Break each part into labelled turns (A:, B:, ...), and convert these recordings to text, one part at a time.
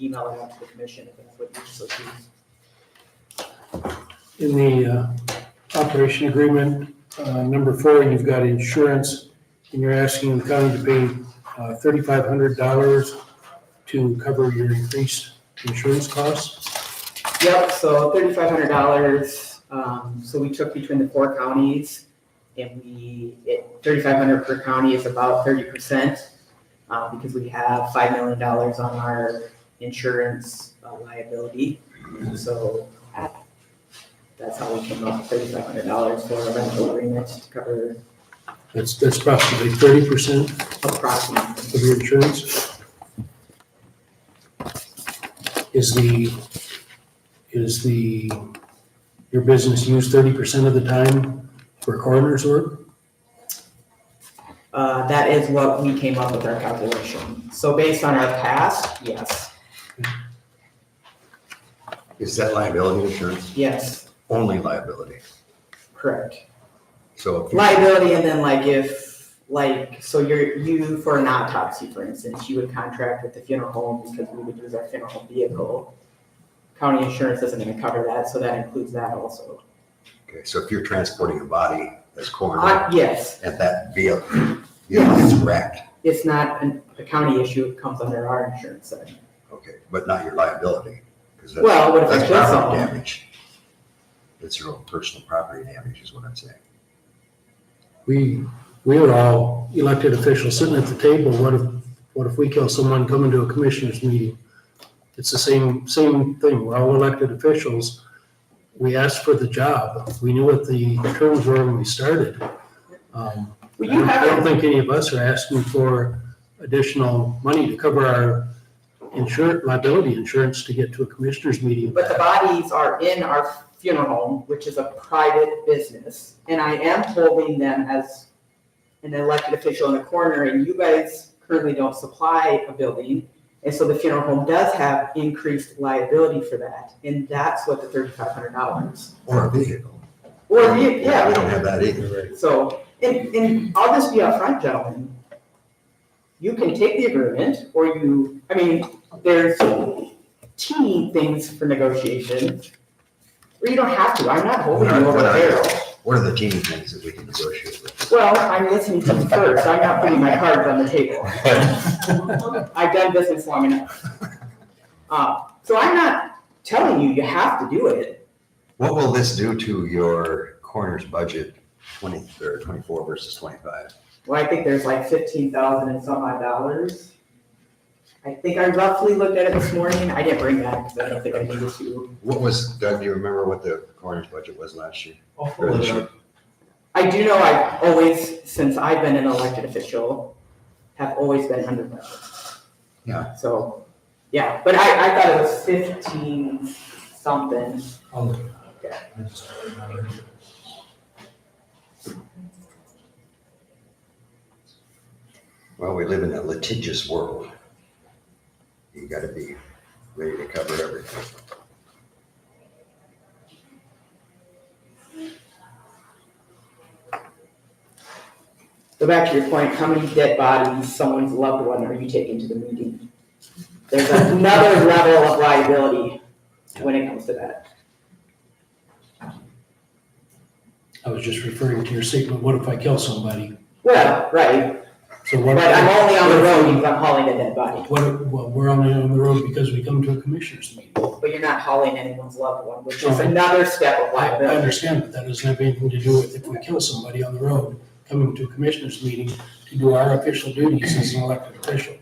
A: email it out to the commission if that's what you so choose.
B: In the uh, operation agreement, uh, number four, you've got insurance, and you're asking the county to pay uh, thirty-five hundred dollars to cover your increased insurance costs.
A: Yep, so thirty-five hundred dollars, um, so we took between the four counties and we, it, thirty-five hundred per county is about thirty percent. Uh, because we have five million dollars on our insurance uh, liability, so that's how we came up with thirty-five hundred dollars for a rental agreement to cover
B: That's, that's approximately thirty percent
A: approximately.
B: of your insurance. Is the, is the, your business used thirty percent of the time for coroner's work?
A: Uh, that is what we came up with our calculation. So based on our past, yes,
C: Is that liability insurance?
A: yes,
C: Only liability.
A: correct.
C: So if you-
A: liability and then like if like so you're you for an autopsy for instance you would contract with the funeral home because we would use our funeral home vehicle county insurance isn't going to cover that so that includes that also
C: okay, so if you're transporting a body as coroner
A: uh, yes
C: and that vehicle, vehicle gets wrecked,
A: it's not an, a county issue it comes under our insurance section
C: okay, but not your liability. 'cause that's-
A: Well, what if I
C: that's
A: kill
C: property
A: someone?
C: Damage. It's your own personal property damage is what I'm saying.
B: We, we are all elected officials sitting at the table. What if, what if we kill someone coming to a commissioners meeting? It's the same, same thing. We're all elected officials. We asked for the job. We knew what the terms were when we started. Um,
A: well
B: I
A: you
B: don't- I don't
A: have
B: think any of us are asking for additional money to cover our insurance, liability insurance to get to a commissioners meeting.
A: but the bodies are in our funeral home which is a private business and i am holding them as an elected official in the corner, and you guys currently don't supply a building. And so the funeral home does have increased liability for that, and that's what the thirty-five hundred dollars.
C: Or a vehicle.
A: Or, the-
C: We
A: yeah,
C: don't have that either.
A: so, and, and I'll just be upfront, gentlemen. You can take the agreement, or you, I mean, there's teeny things for negotiation. Or you don't have to, I'm not holding you over the barrel.
C: What are the teeny things that we can negotiate with?
A: Well, I'm listening to you first, I'm not putting my cards on the table. I've done business long enough. Uh, so I'm not telling you you have to do it.
C: What will this do to your coroner's budget twenty, or twenty-four versus twenty-five?
A: Well, I think there's like fifteen thousand and some odd dollars. I think I roughly looked at it this morning. I didn't bring that because I don't think I needed to.
C: What was, Doug, do you remember what the coroner's budget was last year?
D: I'll
C: Or
D: pull
C: this
D: it
C: year?
D: up.
A: I do know I've always, since I've been an elected official, have always been under budget.
C: Yeah.
A: So, yeah, but I, I thought it was fifteen something.
D: I'll look it up. I just don't remember.
C: Well, we live in a litigious world. You gotta be ready to cover everything.
A: So back to your point, how many dead bodies, someone's loved one, are you taking to the meeting? There's another level of liability when it comes to that.
B: I was just referring to your statement, what if I kill somebody?
A: Well, right,
B: So what?
A: but I'm only on the road because I'm hauling a dead body,
B: What, if- well, we're only on the road because we come to a commissioners meeting.
A: but you're not hauling anyone's loved one, which is
B: Right.
A: another step of
B: I I
A: liability.
B: understand, but that doesn't have anything to do with if we kill somebody on the road, coming to a commissioners meeting to do our official duties as an elected official.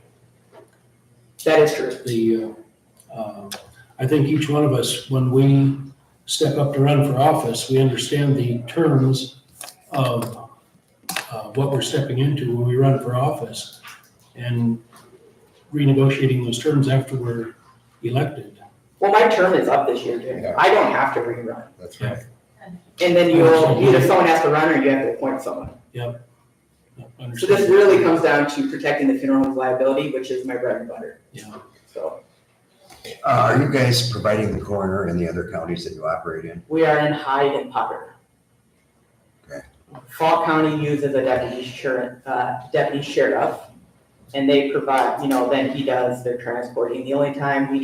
A: That is true.
B: The, uh, uh, I think each one of us, when we step up to run for office, we understand the terms of uh, what we're stepping into when we run for office and renegotiating those terms after we're elected.
A: Well, my term is up this year, Jim.
C: Yeah.
A: I don't have to rerun.
C: That's
B: right.
A: And then you'll, either someone has to run or you have to appoint someone. So this
B: Understand?
A: really comes down to protecting the funeral home's liability, which is my bread and butter,
B: Yeah.
A: so.
C: Uh, are you guys providing the coroner in the other counties that you operate in?
A: We are in Hyde and Potter.
C: Okay.
A: Fall County uses a deputy sheriff, uh, deputy sheriff, and they provide, you know, then he does their transporting. The only time we